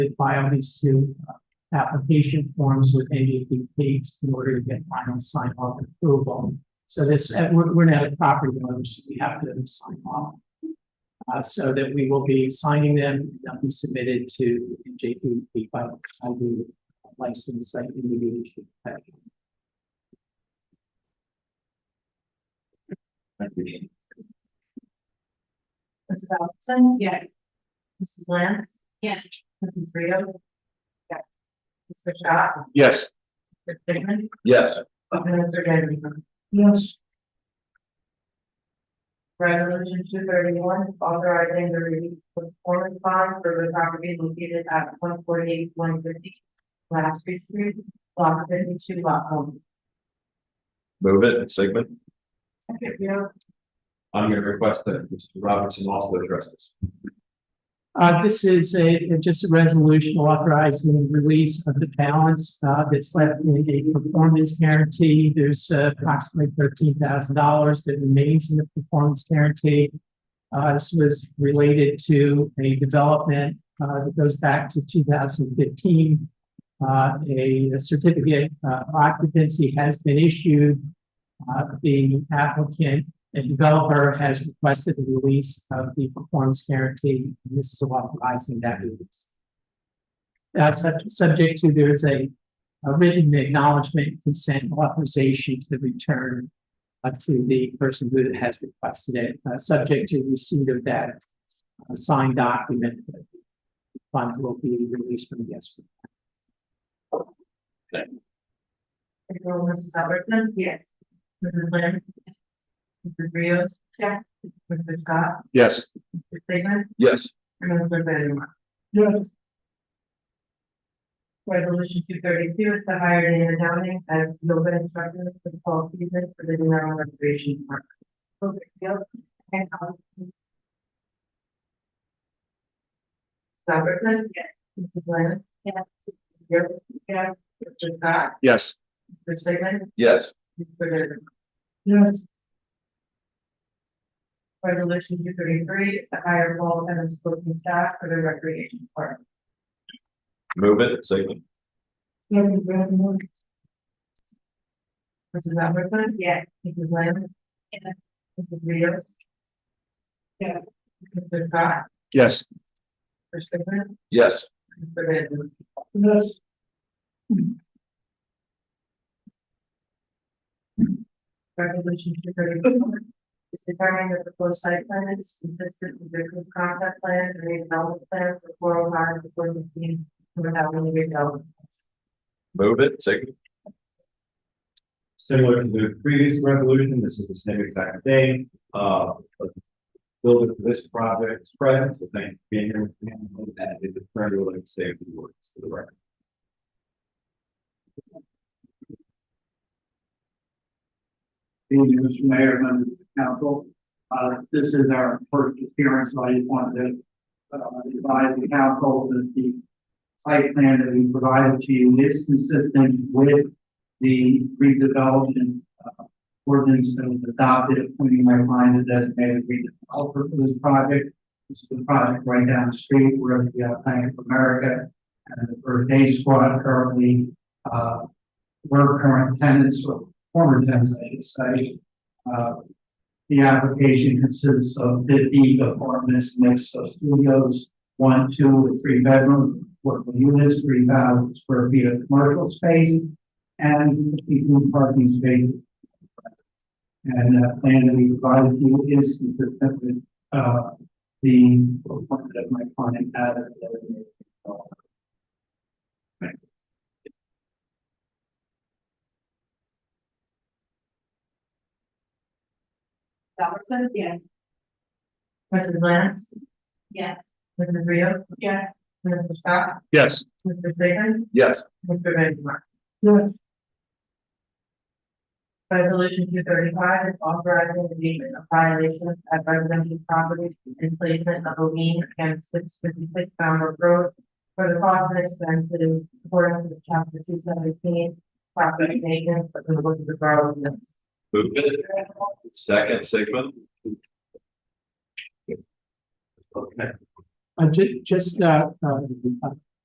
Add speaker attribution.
Speaker 1: They file these two uh, application forms with NJDP in order to get final sign off and approval. So this, uh, we're, we're not a property owner, so we have to sign off. Uh, so that we will be signing them, they'll be submitted to NJDP by, by the license site individual.
Speaker 2: Mrs. Allison? Yes. Mrs. Lance? Yes. Mrs. Rio? Yes. Mr. Shaw?
Speaker 3: Yes.
Speaker 2: Mr. Figman?
Speaker 3: Yes.
Speaker 2: Mr. Benjamin?
Speaker 1: Yes.
Speaker 2: Resolution two thirty-one, authorizing the release of performance bond for the property located at one forty-eight, one fifty, Last Street, Street, block fifty-two, lot home.
Speaker 3: Move it, Sigmund.
Speaker 2: Second, Rio?
Speaker 3: I'm going to request that Mr. Robertson also address this.
Speaker 1: Uh, this is a, just a resolution authorizing the release of the balance, uh, that's left in a performance guarantee. There's uh, approximately thirteen thousand dollars that remains in the performance guarantee. Uh, this was related to a development, uh, that goes back to two thousand fifteen. Uh, a certificate uh, occupancy has been issued. Uh, the applicant the developer has requested the release of the performance guarantee, and this is authorizing that release. Uh, sub- subject to, there's a, a written acknowledgement consent authorization to the return uh, to the person who has requested it, uh, subject to receipt of that uh, signed document. the Fund will be released from the escrow.
Speaker 2: Second row, Mrs. Albertson? Yes. Mrs. Lance? Mrs. Rio? Yes. Mr. Shaw?
Speaker 3: Yes.
Speaker 2: Mr. Figman?
Speaker 3: Yes.
Speaker 2: And Mr. Benjamin?
Speaker 1: Yes.
Speaker 2: Resolution two thirty-two is to hire Dana Downing as yoga instructor for the fall season for the New Island Recreation Park. Okay, yep. And, um, Robertson? Yes. Mrs. Lance? Yes. Yep, yeah, Mr. Scott,
Speaker 3: Yes.
Speaker 2: Mr. Sigmund,
Speaker 3: Yes.
Speaker 2: Mr. Benjamin.
Speaker 1: Yes.
Speaker 2: Resolution two thirty-three is to hire Paul Evans coaching staff for the recreation park.
Speaker 3: Move it, Sigmund.
Speaker 2: Mrs. Albertson? Yes. Mrs. Lynn? Yes. Mrs. Rios? Yes. Mr. Scott?
Speaker 3: Yes.
Speaker 2: Mr. Sigmund?
Speaker 3: Yes.
Speaker 2: Mr. Benjamin?
Speaker 1: Yes.
Speaker 2: Resolution two thirty-four is determining that the proposed site plan is consistent with the approved concept plan and redevelopment plan for four oh five to four fifteen Plymouth Avenue redevelopment.
Speaker 3: Move it, Sigmund.
Speaker 4: Similar to the previous resolution, this is the same exact thing, uh. but Building for this project is present, so thank you for being here. And if the friend would like to say a few words to the record.
Speaker 5: Evening, Mr. Mayor, members of the council. Uh, this is our first appearance, so I just wanted to uh, advise the council that the site plan that we provided to you is consistent with the redevelopment uh, ordinance that was adopted, appointing my client as designated redeveloper for this project. This is the project right down the street where we have Bank of America and the Earth Day Squad currently, uh, were current tenants or former tenants, I should say. Uh, The application consists of fifty apartments, mixed of studios, one, two, and three bedrooms, workable units, three thousand square feet of commercial space, and fifty-two parking spaces. And that plan that we provided you is consistent with, uh, the appointment of my client as a designated developer.
Speaker 2: Albertson? Yes. Mrs. Lance? Yes. Mrs. Rio? Yes. Mr. Scott?
Speaker 3: Yes.
Speaker 2: Mr. Sigmund?
Speaker 3: Yes.
Speaker 2: Mr. Benjamin?
Speaker 1: Yes.
Speaker 2: Resolution two thirty-five is authorizing the abatement of violations at residential property and placement of a lien against six fifty-six Falmouth Road for the cost and expenses according to chapter two seventeen, property maintenance, but the book of the borough of this.
Speaker 3: Move it. Second, Sigmund.
Speaker 1: Uh, ju- just, uh, uh,